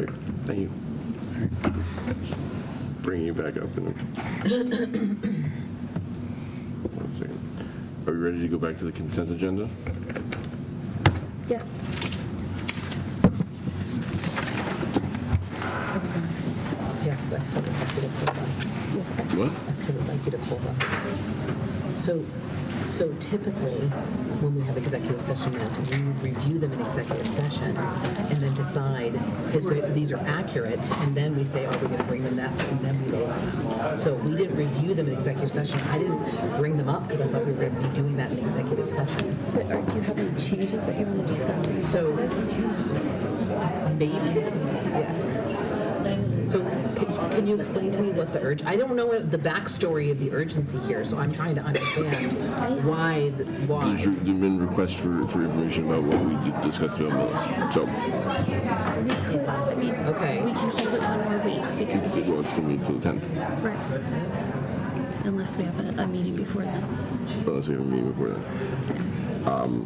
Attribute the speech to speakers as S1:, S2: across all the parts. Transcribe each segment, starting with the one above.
S1: you. Bringing you back up in a... One second. Are we ready to go back to the consent agenda?
S2: Yes.
S3: Yes, but I still would like you to pull them.
S1: What?
S3: I still would like you to pull them. So, so typically, when we have executive session minutes, we would review them in executive session and then decide if they- these are accurate, and then we say, are we going to bring them that, and then we vote on them. So we didn't review them in executive session. I didn't bring them up because I thought we were going to be doing that in executive session.
S2: But are, do you have any changes that you want to discuss?
S3: So maybe, yes. So can, can you explain to me what the urge, I don't know what the backstory of the urgency here, so I'm trying to understand why, th-
S1: There's
S3: why.
S1: re- there've been requests for, for information about what we did- discussed about Millis. So,
S2: We could, I mean,
S3: Okay.
S2: we can hold it one more week
S1: it's
S2: because,
S1: going to be till the 10th,
S2: right. Unless we have a, a meeting before then.
S1: unless we have a meeting before then.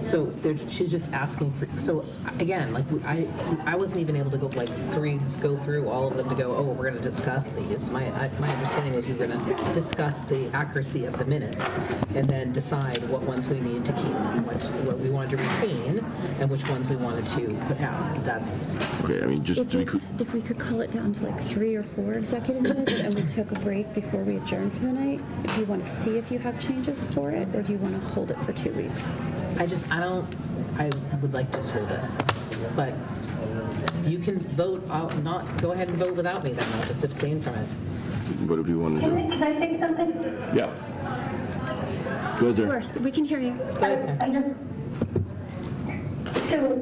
S3: So there, she's just asking for, so again, like I, I wasn't even able to go like three, go through all of them to go, oh, we're going to discuss these. My, I- my understanding was we were going to discuss the accuracy of the minutes and then decide what ones we need to keep, and what, what we wanted to retain and which ones we wanted to put out. That's,
S1: Okay, I mean, just
S2: If
S1: to be clear,
S2: it's, if we could call it down to like three or four executive minutes and we took a break before we adjourned for the night, do you want to see if you have changes for it or do you want to hold it for two weeks?
S3: I just, I don't, I would like to hold it. But you can vote, I'll not, go ahead and vote without me then, I'll just abstain from it.
S1: what do people want to do?
S4: Can I- can I say something?
S1: Yeah. Go ahead,
S2: Of
S1: Sarah.
S2: course, we can hear you.
S3: Go ahead, Sarah.
S4: I just, so,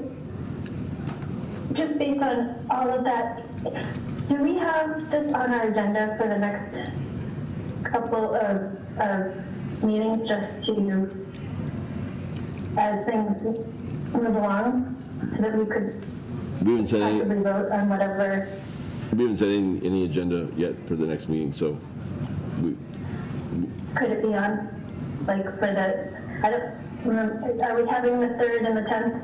S4: just based on all of that, do we have this on our agenda for the next couple of, of meetings just to, as things move along, so that we could
S1: We haven't said, any-
S4: possibly vote on whatever?
S1: we haven't set any, any agenda yet for the next meeting, so we,
S4: Could it be on, like, for the, I don't, remember- are we having the 3rd and the 10th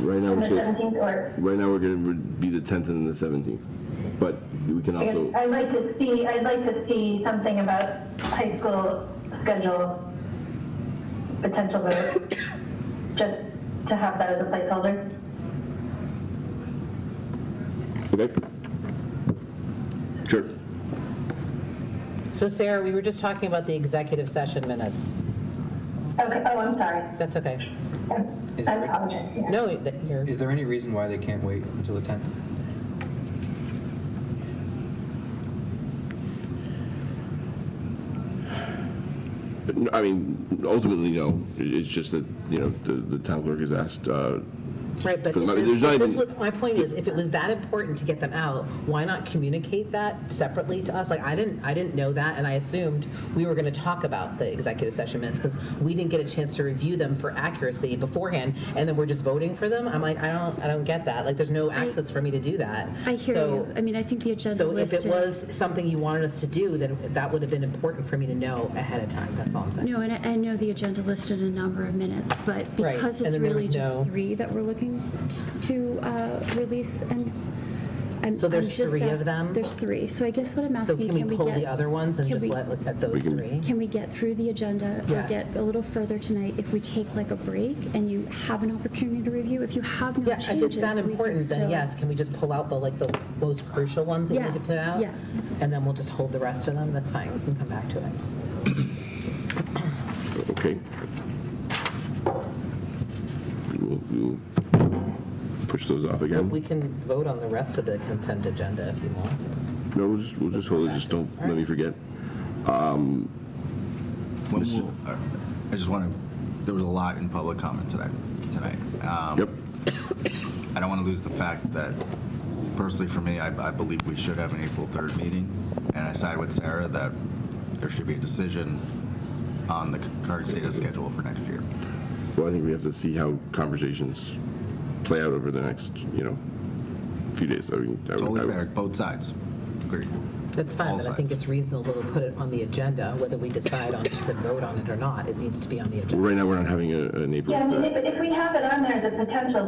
S1: right now
S4: and
S1: we're saying,
S4: the 17th, or?
S1: right now we're going to be the 10th and the 17th, but we can
S4: I guess
S1: also,
S4: I'd like to see, I'd like to see something about high school schedule potential vote, just to have that as a placeholder.
S1: okay? Sure.
S3: So Sarah, we were just talking about the executive session minutes.
S4: Okay, oh, I'm sorry.
S3: That's okay.
S5: Is
S4: I
S5: there-
S4: apologize. yeah.
S3: No, that- you're,
S5: Is there any reason why they can't wait until the 10th?
S1: No, I mean, ultimately, no. It- It's just that, you know, the, the town clerk has asked, uh,
S3: right, but
S1: But there's
S3: if this-
S1: not
S3: if this
S1: even-
S3: was- my point is, if it was that important to get them out, why not communicate that separately to us? Like, I didn't, I didn't know that, and I assumed we were going to talk about the executive session minutes, because we didn't get a chance to review them for accuracy beforehand, and then we're just voting for them? I'm like, I don't, I don't get that. Like, there's no access for me to do that.
S2: I hear
S3: So-
S2: you. I mean, I think the agenda
S3: So if
S2: listed.
S3: it was something you wanted us to do, then that would have been important for me to know ahead of time, that's all I'm saying.
S2: No, and I, I know the agenda listed a number of minutes, but
S3: Right,
S2: because
S3: and
S2: it's
S3: then there was
S2: really just
S3: no-
S2: three that we're looking t- to uh, release, and I'm
S3: So there's
S2: I'm just
S3: three of
S2: ask-
S3: them?
S2: There's three. So I guess what I'm
S3: So
S2: asking,
S3: can we pull
S2: get,
S3: the other ones and
S2: can
S3: just
S2: we-
S3: let, look at those
S1: can-
S3: three?
S2: Can we get through the agenda
S3: Yes.
S2: or get a little further tonight if we take like a break and you have an opportunity to review? If you have no
S3: Yeah,
S2: changes,
S3: if it's that
S2: we can
S3: important, then
S2: still-
S3: yes, can we just pull out the, like, the most crucial ones that we need to
S2: Yes,
S3: put out?
S2: yes.
S3: And then we'll just hold the rest of them, that's fine, we can come back to it.
S1: okay. We'll, we'll push those off again.
S3: We can vote on the rest of the consent agenda if you want to.
S1: No, we'll just, we'll just hold it, just don't, let me forget.
S6: When will- I uh, I just want to, there was a lot in public comment today, tonight. Um,
S1: Yep,
S6: I don't want to lose the fact that personally for me, I, I believe we should have an April 3rd meeting. And I side with Sarah that there should be a decision on the current state of schedule for next year.
S1: well, I think we have to see how conversations play out over the next, you know, few days. I mean, I would- I
S6: Totally
S1: would-
S6: fair, both sides. Agreed.
S3: That's fine,
S6: All
S3: but I think
S6: sides.
S3: it's reasonable to put it on the agenda, whether we decide on, to vote on it or not, it needs to be on the agenda.
S1: Well, Right now, we're not having a, an April.
S4: Yeah, I mean,
S1: uh,
S4: if, if we have it on there as a potential